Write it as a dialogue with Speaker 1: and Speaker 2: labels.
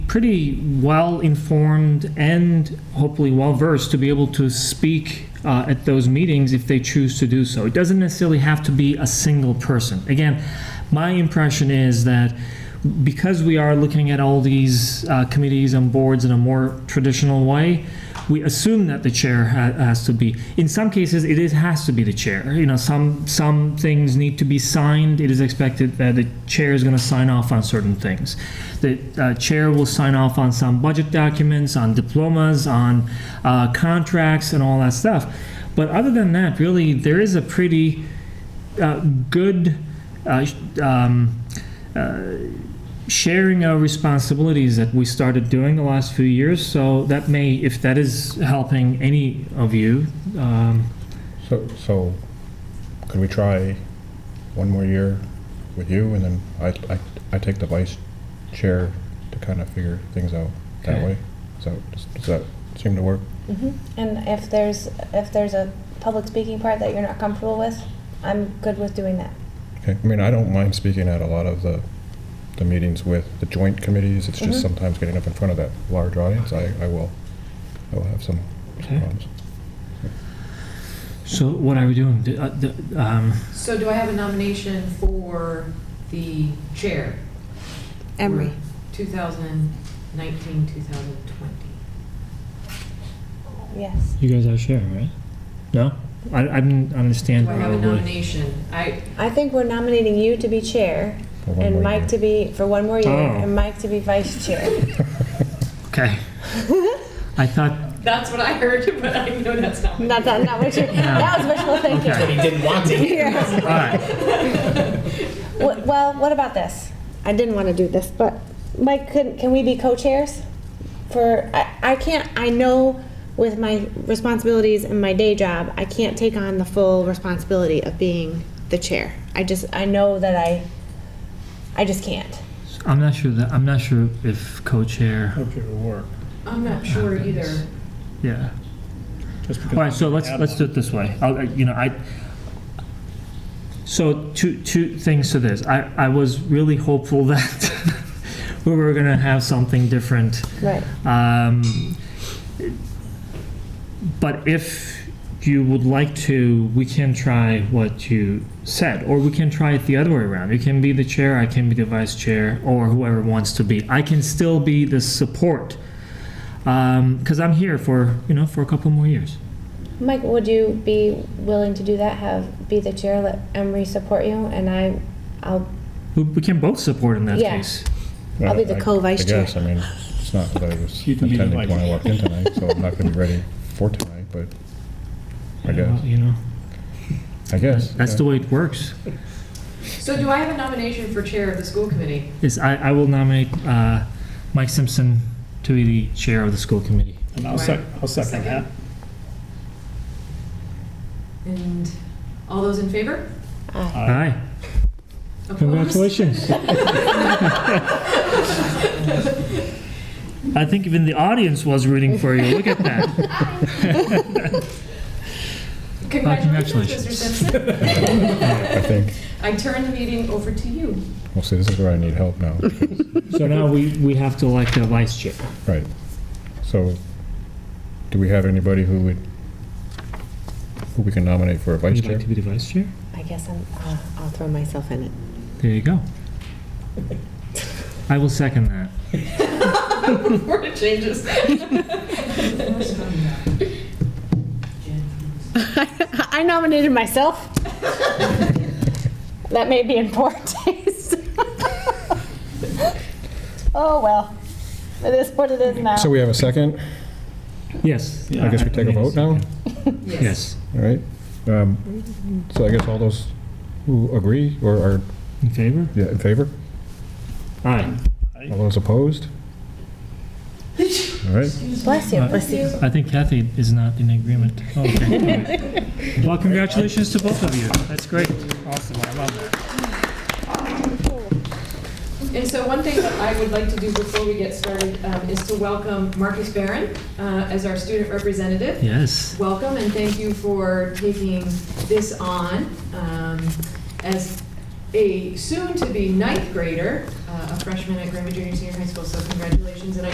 Speaker 1: pretty well-informed and hopefully well-versed to be able to speak uh, at those meetings if they choose to do so. It doesn't necessarily have to be a single person. Again, my impression is that because we are looking at all these uh, committees and boards in a more traditional way, we assume that the chair ha- has to be. In some cases, it is has to be the chair. You know, some some things need to be signed. It is expected that the chair is going to sign off on certain things. The uh, chair will sign off on some budget documents, on diplomas, on uh, contracts, and all that stuff. But other than that, really, there is a pretty uh, good. Uh, sh- um, sharing our responsibilities that we started doing the last few years. So that may, if that is helping any of you, um,
Speaker 2: So, so could we try one more year with you and then I, I, I take the vice chair to kind of figure things out that
Speaker 1: Okay.
Speaker 2: way? So does, does that seem to work?
Speaker 3: Mhm. And if there's, if there's a public speaking part that you're not comfortable with, I'm good with doing that.
Speaker 2: Okay, I mean, I don't mind speaking at a lot of the, the meetings with the joint committees. It's just
Speaker 1: Mm-hmm.
Speaker 3: Mhm.
Speaker 2: sometimes getting up in front of that large audience, I, I will, I will have some
Speaker 1: Okay.
Speaker 2: problems.
Speaker 1: so what are we doing? The- uh, the, um,
Speaker 4: So do I have a nomination for the chair?
Speaker 5: Emery.
Speaker 4: 2019, 2020.
Speaker 3: Yes.
Speaker 1: You guys are sharing, right? No? I, I didn't
Speaker 4: Do
Speaker 1: understand
Speaker 4: I have a
Speaker 1: probably.
Speaker 4: nomination? I,
Speaker 3: I think we're nominating you to be chair
Speaker 2: for one
Speaker 3: and
Speaker 2: more
Speaker 3: Mike
Speaker 2: year.
Speaker 3: to be, for one more year,
Speaker 1: Oh.
Speaker 3: and Mike to be vice chair.
Speaker 1: Okay. I thought,
Speaker 4: that's what I heard, but I know that's not. what-
Speaker 3: Not that, not what you, that was wishful
Speaker 1: Okay.
Speaker 3: thinking.
Speaker 6: He didn't want to.
Speaker 3: Yeah.
Speaker 1: all right,
Speaker 3: Wh- Well, what about this? I didn't want to do this, but Mike, can, can we be co-chairs? For, I, I can't, I know with my responsibilities and my day job, I can't take on the full responsibility of being the chair. I just, I know that I, I just can't.
Speaker 1: I'm not sure that, I'm not sure if co-chair,
Speaker 7: Okay, it'll work.
Speaker 4: I'm not sure either.
Speaker 1: yeah.
Speaker 7: Just because
Speaker 1: All right, so let's,
Speaker 7: Add
Speaker 1: let's do it this way. I'll, I- you know, I, so two, two things to this. I, I was really hopeful that we were gonna have something different.
Speaker 3: Right.
Speaker 1: Um, But if you would like to, we can try what you said, or we can try it the other way around. You can be the chair, I can be the vice chair, or whoever wants to be. I can still be the support, because I'm here for, you know, for a couple more years.
Speaker 3: Mike, would you be willing to do that? Have, be the chair, let Emery support you, and I, I'll,
Speaker 1: We- We can both support in that
Speaker 3: Yeah.
Speaker 1: case.
Speaker 3: I'll be the
Speaker 2: I-
Speaker 3: co-vice
Speaker 2: I guess, I mean, it's not that I was
Speaker 7: You can be the
Speaker 2: intending when I
Speaker 7: vice.
Speaker 2: walked in tonight, so I'm not gonna be ready for tonight, but I
Speaker 1: Yeah, well,
Speaker 2: guess,
Speaker 1: You know,
Speaker 2: I guess.
Speaker 1: that's
Speaker 2: yeah.
Speaker 1: the way it works.
Speaker 4: So do I have a nomination for chair of the school committee?
Speaker 1: Is I, I will nominate uh, Mike Simpson to be the chair of the school committee.
Speaker 7: And I'll sec, I'll second that.
Speaker 4: And all those in favor?
Speaker 3: I,
Speaker 7: Aye.
Speaker 1: Aye.
Speaker 4: Opposed?
Speaker 1: Congratulations. I think even the audience was rooting for you. Look at that.
Speaker 4: Congratulations,
Speaker 1: Congratulations.
Speaker 4: Mr. Simpson.
Speaker 2: I think,
Speaker 4: I turn the meeting over to you.
Speaker 2: well, see, this is where I need help now.
Speaker 1: So now we, we have to elect a vice chair.
Speaker 2: Right. So, do we have anybody who would, who we can nominate for a vice
Speaker 1: Would you
Speaker 2: chair?
Speaker 1: like to be the vice chair?
Speaker 3: I guess I'm, I'll, I'll throw myself in it.
Speaker 1: There you go. I will second that.
Speaker 4: Before it changes.
Speaker 3: I nominated myself. that may be in poor taste. oh well, it is what it is now.
Speaker 2: So we have a second?
Speaker 1: Yes.
Speaker 2: I guess we take a vote now?
Speaker 1: Yes,
Speaker 2: All right. Um, So I guess all those who agree or are
Speaker 1: in favor?
Speaker 2: yeah, in favor?
Speaker 1: Aye.
Speaker 2: All those opposed? All right.
Speaker 3: Bless you,
Speaker 1: Uh,
Speaker 3: bless you.
Speaker 1: I think Kathy is not in agreement. Oh, Okay. Well, congratulations to both of you. That's great. Awesome, I love that.
Speaker 4: And so one thing that I would like to do before we get started um, is to welcome Marcus Barron uh, as our student representative.
Speaker 1: Yes.
Speaker 4: Welcome and thank you for taking this on. Um, As a soon-to-be ninth grader, uh, a freshman at Grandma Junior Senior High School, so congratulations. And I